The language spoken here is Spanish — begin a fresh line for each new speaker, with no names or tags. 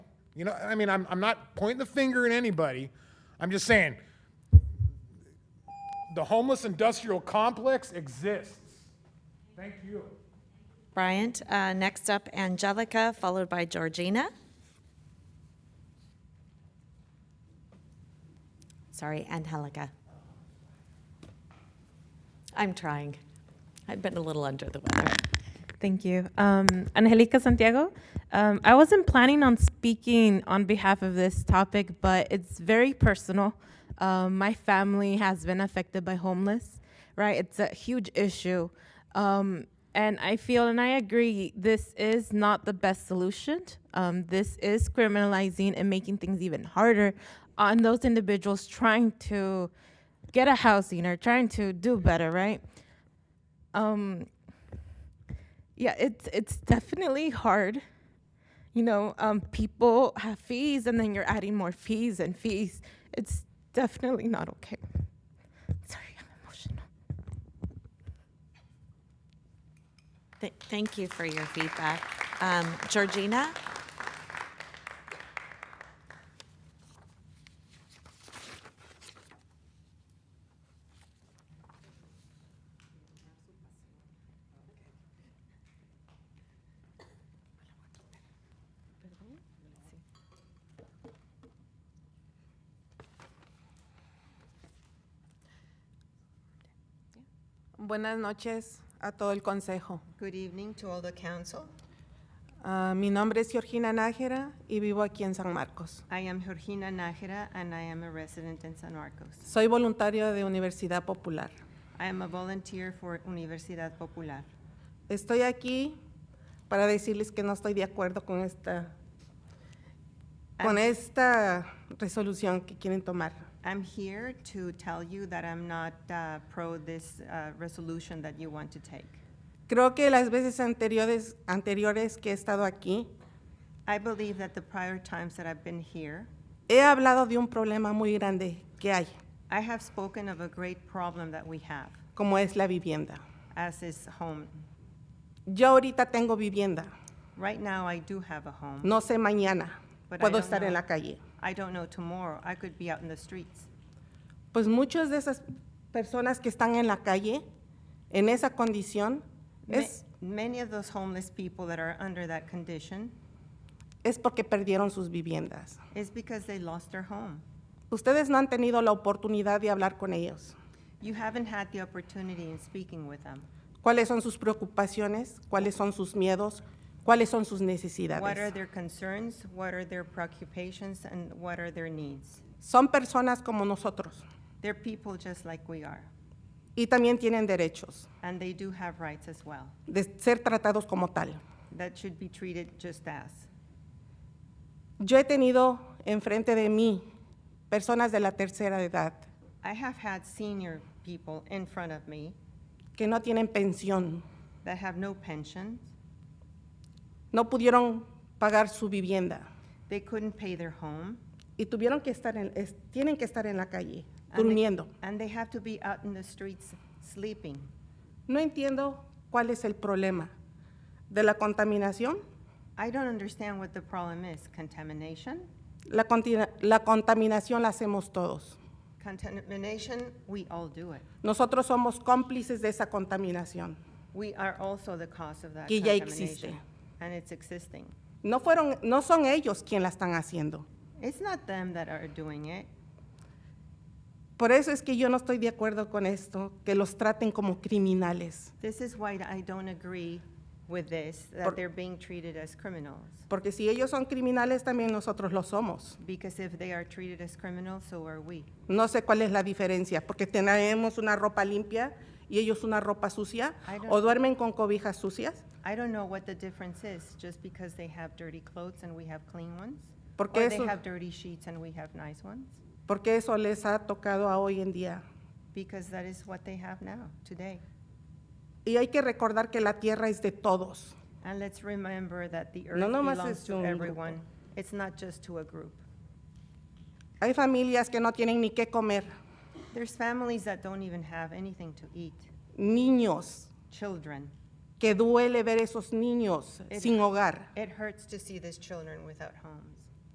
You know, I mean, I'm, I'm not pointing the finger at anybody. I'm just saying the homeless industrial complex exists. Thank you.
Bryant. Uh, Next up, Angelica, followed by Georgina. Sorry, Angelica. I'm trying. I've been a little under the weather.
Thank you. Um, Angelica Santiago. Um, I wasn't planning on speaking on behalf of this topic, but it's very personal. Um, my family has been affected by homeless, right? It's a huge issue. Um, and I feel and I agree, this is not the best solution. Um, this is criminalizing and making things even harder on those individuals trying to get a housing or trying to do better, right? Um, yeah, it's it's definitely hard. You know, um, people have fees, and then you're adding more fees and fees. It's definitely not okay. Sorry, I'm emotional.
Th- Thank you for your feedback. Um, Georgina?
Buenas noches a todo el consejo.
Good evening to all the council.
Ah, mi nombre es Georgina Nájera y vivo aquí en San Marcos.
I am Georgina Nájera, and I am a resident in San Marcos.
Soy voluntaria de Universidad Popular.
I am a volunteer for Universidad Popular.
Estoy aquí para decirles que no estoy de acuerdo con esta, con
Ah.
esta resolución que quieren tomar.
I'm here to tell you that I'm not uh, pro this uh, resolution that you want to take.
Creo que las veces anteriores, anteriores que he estado aquí,
I believe that the prior times that I've been here,
he hablado de un problema muy grande que hay,
I have spoken of a great problem that we have,
como es la vivienda.
as is home.
Yo ahorita tengo vivienda,
Right now, I do have a home.
no sé mañana,
But I
puedo
don't
estar en
know.
la calle.
I don't know tomorrow. I could be out in the streets.
Pues muchas de esas personas que están en la calle, en esa condición,
Ma-
es,
Many of those homeless people that are under that condition
es porque perdieron sus viviendas.
is because they lost their home.
Ustedes no han tenido la oportunidad de hablar con ellos.
You haven't had the opportunity in speaking with them.
¿Cuáles son sus preocupaciones? ¿Cuáles son sus miedos? ¿Cuáles son sus
What are
necesidades?
their concerns? What are their preoccupations? And what are their needs?
Son personas como nosotros
They're people just like we are,
y también tienen derechos
and they do have rights as well
de ser tratados como tal.
that should be treated just as.
Yo he tenido enfrente de mí personas de la tercera edad
I have had senior people in front of me
que no tienen pensión,
that have no pension.
no pudieron pagar su vivienda.
They couldn't pay their home.
y tuvieron que estar en, es- tienen que estar en la calle,
and they-
durmiendo.
And they have to be out in the streets sleeping.
No entiendo cuál es el problema de la contaminación,
I don't understand what the problem is. Contamination?
la, contina- la contaminación la hacemos todos.
Contamination, we all do it.
Nosotros somos cómplices de esa contaminación.
We are also the cause of that
Que ya
contamination.
existe.
And it's existing.
No, fueron, no son ellos quienes la están haciendo.
It's not them that are doing it.
Por eso es que yo no estoy de acuerdo con esto, que los traten como criminales,
This is why I don't agree with this,
Por-
that they're being treated as criminals.
porque si ellos son criminales también nosotros lo somos.
Because if they are treated as criminals, so are we.
No sé cuál es la diferencia, porque tenemos una ropa limpia y ellos una ropa sucia,
I don't-
o duermen con cobijas sucias,
I don't know what the difference is, just because they have dirty clothes and we have clean ones?
Porque
Or they
eso-
have dirty sheets and we have nice ones?
porque eso les ha tocado a hoy en día.
Because that is what they have now, today.
Y hay que recordar que la tierra es de todos.
And let's remember that the earth
No nomás
belongs
es de un
to
grupo.
everyone. It's not just to a group.
Hay familias que no tienen ni qué comer,
There's families that don't even have anything to eat,
niños,
children.
que duele ver esos niños
It-
sin hogar.
It hurts to see these children without homes.